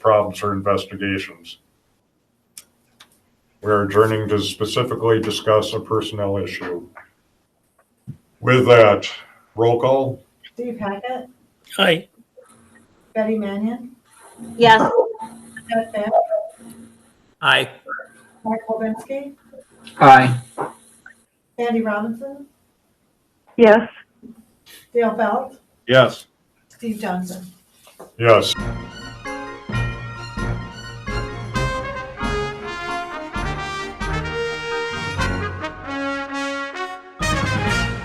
problems or investigations. We are adjourning to specifically discuss a personnel issue. With that, roll call, Steve Hackett, Aye. Betty Mannion, Yes. Jeff Beck, Aye. Mark Wolbinski, Aye. Andy Robinson, Yes. Dale Belt, yes. Steve Johnson. Yes.